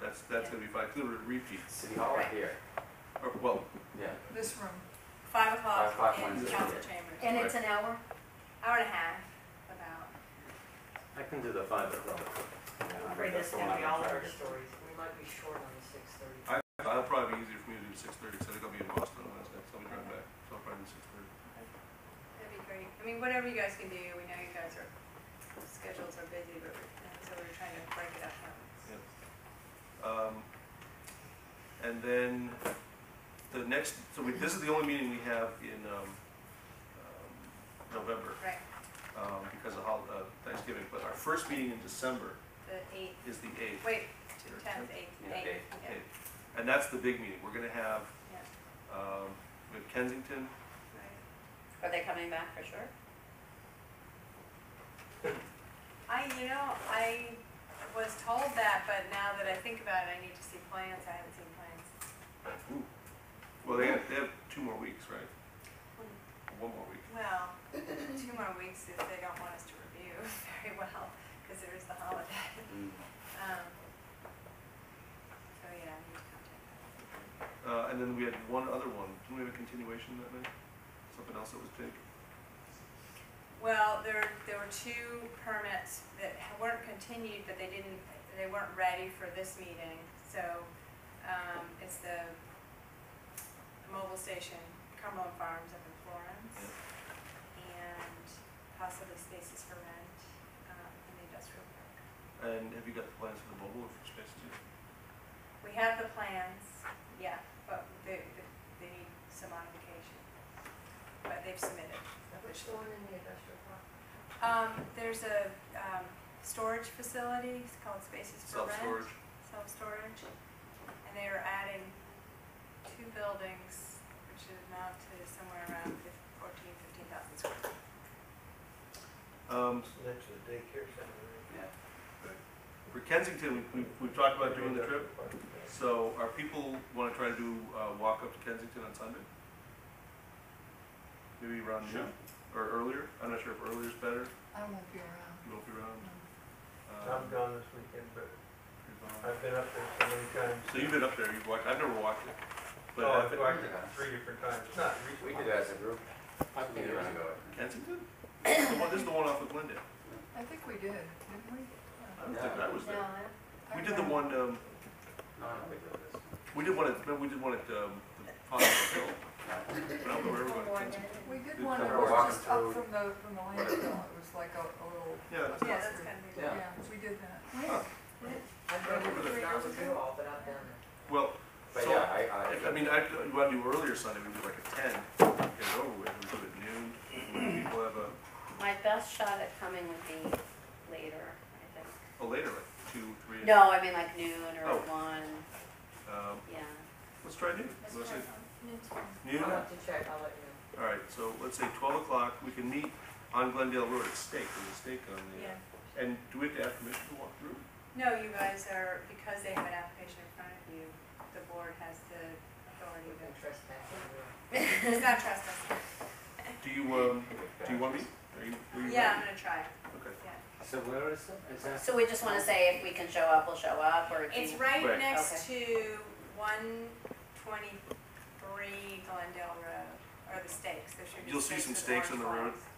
that's, that's gonna be five, 'cause there were repeats, City Hall or Right. here? or, well, Yeah. This room, Five Five o'clock o'clock in Wednesday. council chambers. and it's an hour? Hour and a half, about. I can do the five o'clock. Yeah, I Afraid think that's that's the one gonna I'm be all gonna our target. stories. We might be short on the six thirty. I, I'll probably be easier for me to do six thirty, cause I think I'll be in Boston on Wednesday, so I'll be driving back, so I'll probably do six thirty. That'd be great. I mean, whatever you guys can do, we know you guys are, schedules are busy, but, we're- and so we're trying to break it up. Um, and then the next, so we, this is the only meeting we have in, um, um, November, Right, um, because of hol- uh, Thanksgiving, but our first meeting in December the eighth, is the eighth. wait, two, tenth, eighth, Yeah, eighth, eighth, yeah, And that's the big meeting, we're gonna have, yeah, um, we have Kensington, right. Are they coming back for sure? I, you know, I was told that, but now that I think about it, I need to see plans. I haven't seen plans. Ooh. Well, they have, they have two more weeks, right? One more week. Well, two more weeks if they don't want us to review very well, because there is the holiday. Mm. Um, So, yeah, I need to contact them. Uh, and then we had one other one. Didn't we have a continuation that night? Something else that was big? Well, there, there were two permits that weren't continued, but they didn't, they weren't ready for this meeting. So, um, it's the mobile station, Cumberland Farms up in Florence, and possibly Spaces for Rent, um, in the industrial park. And have you got the plans for the mobile or for space two? We have the plans, yeah, but they, they need some modification, but they've submitted. Which the one in the industrial park? Um, there's a, um, storage facility, it's called Spaces for Rent. Self-storage? Self-storage, and they are adding two buildings, which should amount to somewhere around fif- fourteen, fifteen thousand square. feet. Um, Next to the daycare center. Yeah. for Kensington, we, we, we've talked about doing the trip. So are people want to try to do uh, walk up to Kensington on Sunday? Maybe around Sure. noon or earlier? I'm not sure if earlier is better. I won't be around. You won't be around. Um, I'm gone this weekend, but you're gone. I've been up there so many times. So you've been up there. You've walked. I've never walked it. But Oh, I've I've been- liked it three different times, not We recently. did as a group. I can We did do it. around go. Kensington? This is the one- this is the one off of Glendale. I think we did, didn't we? I don't think I was No, there. I- We did the one, um, No, I don't think we did this. we did one at, remember we did one at, um, the Pond Hill, but I No. don't remember everybody. Memorial Kensington. Day. We did Did one that Colorado was just Rock up Road. from the, from the Whatever. landfill. It was like a, a little. Yeah, that's- Yeah, that's kind of. Yeah. Yeah, we did that. Huh. I've I done remember it three that. years ago, but I've done it. Well, But So, yeah, I, if- I mean, I, could- what I do earlier Sunday, we do like at ten, get it over with, we do it at noon. People have a, My best shot at coming would be later, I think. a later, like two, three. No, I mean like noon or Oh. one, Um, yeah. let's try noon. You wanna say Noon? I'll All have to check, I'll let you right, so let's say twelve o'clock, we can meet on Glendale Road at stake, there's a stake on Yeah. the, and do we have to ask permission to walk through? No, you guys are, because they have an application in front of you, the board has the know. authority You to, can trespass anywhere. it's not trespassing. Do you, um, I. do you want me? Are you, are you? Yeah, I'm gonna try it, ready? Okay. yeah. So where is it? Is that? So we just wanna say if we can show up, we'll show up, or if It's you- right Right. next to one twenty-three Glendale Road, or the stakes, there should be. You'll see some stakes on with the orange road. flags.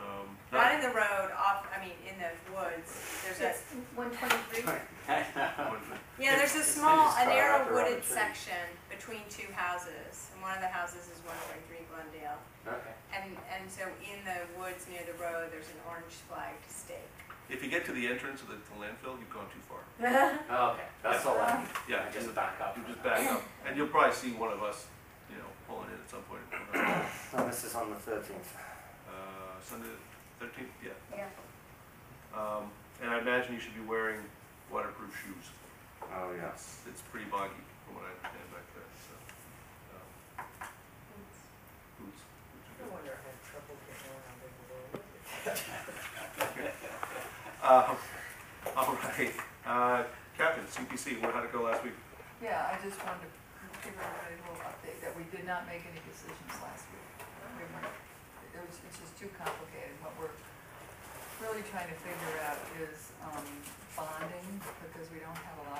Um, Not in the road, off, I mean, in the woods, there's a, It's one twenty-three? yeah, there's a It's- it's small, just a far narrow out there on the wooded tree. section between two houses, and one of the houses is one twenty-three Glendale. Okay. And, and so in the woods near the road, there's an orange flagged stake. If you get to the entrance of the the landfill, you've gone too far. Oh, Okay, that's all I, Yeah, I just, just back up. you from just that. back up, and you'll probably see one of us, you know, pulling in at some point. Uh, No, Oh, this is on the thirteenth. Sunday, the thirteenth, yeah. Yeah. Um, and I imagine you should be wearing waterproof shoes. Oh, yes. It's, it's pretty boggy, from what I understand back there, so. um, Boots. boots are No good. wonder I have trouble getting around in the world. Uh, all right, uh, Captain, CPC, what- how'd it go last week? Yeah, I just wanted to give everybody a little update that we did not make any decisions last week. We weren't, it was, it's just too complicated. What we're really trying to figure out is, um, bonding, because we don't have a lot